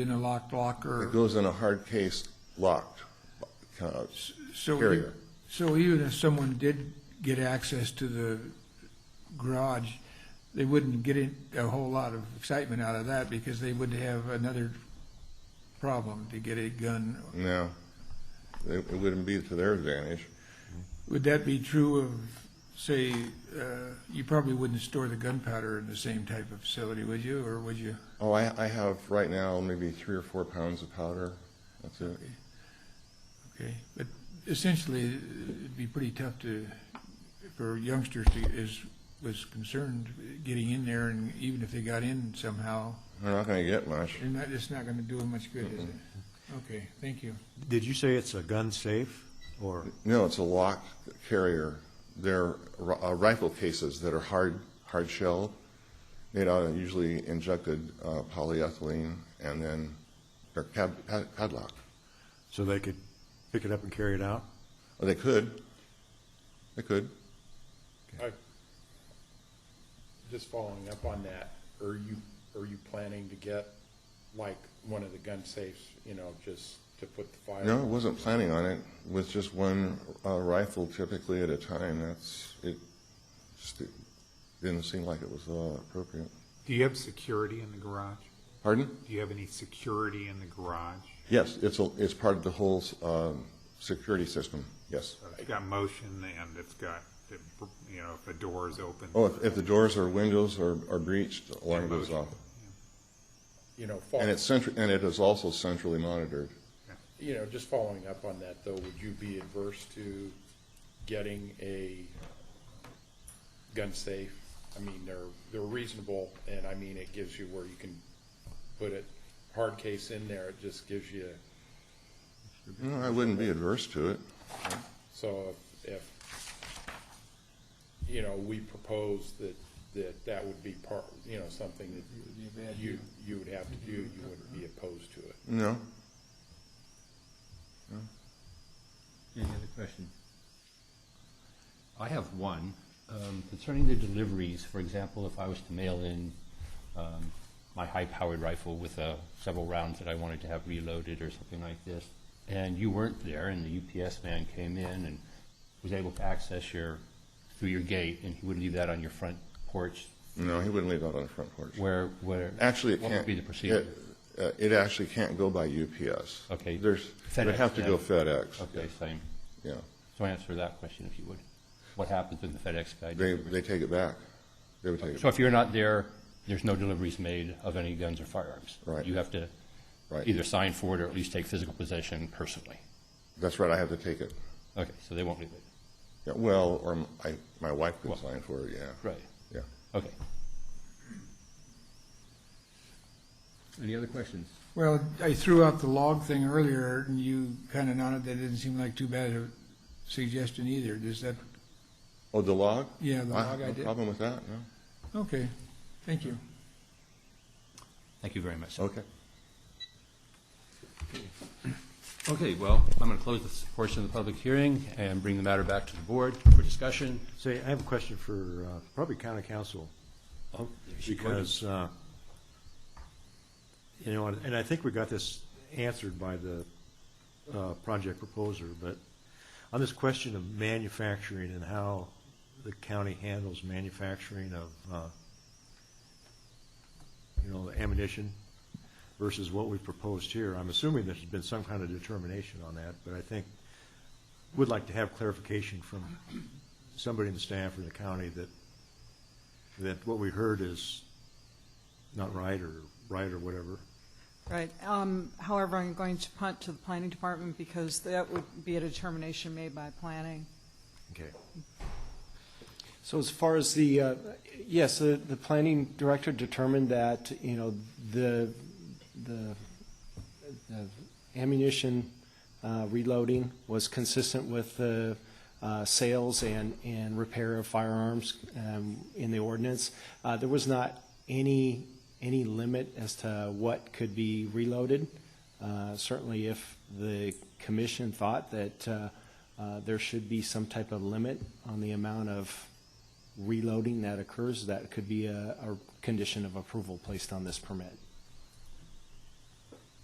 in a locked It locker. goes in a hard case locked uh, So he- carrier. So even if someone did get access to the garage, they wouldn't get in- a whole lot of excitement out of that because they would have another problem to get a gun. No, it it wouldn't be to their advantage. Would that be true of, say, uh, you probably wouldn't store the gunpowder in the same type of facility, would you, or would you? Oh, I, I have right now maybe three or four pounds of powder. That's it. Okay, but essentially, it'd be pretty tough to, for youngsters to, is, was concerned getting in there, and even if they got in somehow, They're not going to get much. they're not, it's not gonna do them much good, is it? Okay, thank you. Did you say it's a gun safe or, No, it's a locked carrier. They're ri- uh, rifle cases that are hard, hard shell, made out of usually injected uh, polyethylene, and then they're cad- pad- padlocked. so they could pick it up and carry it out? Or they could. They could. I- Just following up on that, are you, are you planning to get like one of the gun safes, you know, just to put the fire? No, I wasn't planning on it. With just one uh, rifle typically at a time, that's, it just didn't seem like it was uh, appropriate. Do you have security in the garage? Pardon? Do you have any security in the garage? Yes, it's, a- it's part of the whole um, security system, yes. It's got motion and it's got, you know, if a door is open. Oh, if, if the doors or windows are are breached, alarm goes off. You know, And follow, it's central, and it is also centrally monitored. you know, just following up on that though, would you be adverse to getting a gun safe? I mean, they're, they're reasonable and I mean, it gives you where you can put it, hard case in there, it just gives you, No, I wouldn't be adverse to it. So if- if, you know, we propose that, that that would be part, you know, something that you, you would have to do, you wouldn't be opposed to it. No. Any other question? I have one. Um, Concerning the deliveries, for example, if I was to mail in um, my high-powered rifle with uh, several rounds that I wanted to have reloaded or something like this, and you weren't there, and the UPS man came in and was able to access your, through your gate, and he would leave that on your front porch No, he wouldn't leave that on the front porch. where, where... Actually, it What can't. would be the procedure? It, uh, it actually can't go by UPS. Okay. There's, it would FedEx, have to go yeah. FedEx. Okay, same. Yeah, So answer that question if you would. What happens when the FedEx guy... they, delivers? they take it back. They would take it, So if you're not there, there's no deliveries made of any guns or firearms. Right. You have to right. either sign for it or at least take physical possession personally. That's right, I have to take it. Okay, so they won't leave it. Yeah, Well, or m- I, my wife could Well- sign for it, yeah, Right. yeah. Okay. Any other questions? Well, I threw out the log thing earlier, and you kinda nodded, that didn't seem like too bad a suggestion either, does that, Oh, the log? yeah, the I log have I no did? problem with that, no? Okay, thank you. Thank you very much. Okay. Okay, well, I'm going to close this portion of the public hearing and bring the matter back to the board for discussion. Say, I have a question for uh, probably county council. Because, uh, you know, and I think we got this answered by the uh, project proposer, but on this question of manufacturing and how the county handles manufacturing of, uh, you know, ammunition versus what we proposed here, I'm assuming there's been some kind of determination on that, but I think, would like to have clarification from somebody in the staff or the county that, that what we heard is not right or right or whatever. Right. Um, However, I'm going to punt to the planning department because that would be a determination made by planning. Okay. So as far as the, uh, yes, the, the planning director determined that, you know, the, the the ammunition uh, reloading was consistent with the uh, sales and, and repair of firearms um, in the ordinance. Uh, There was not any, any limit as to what could be reloaded. Uh, Certainly if the commission thought that uh, uh, there should be some type of limit on the amount of reloading that occurs, that could be a, a condition of approval placed on this permit.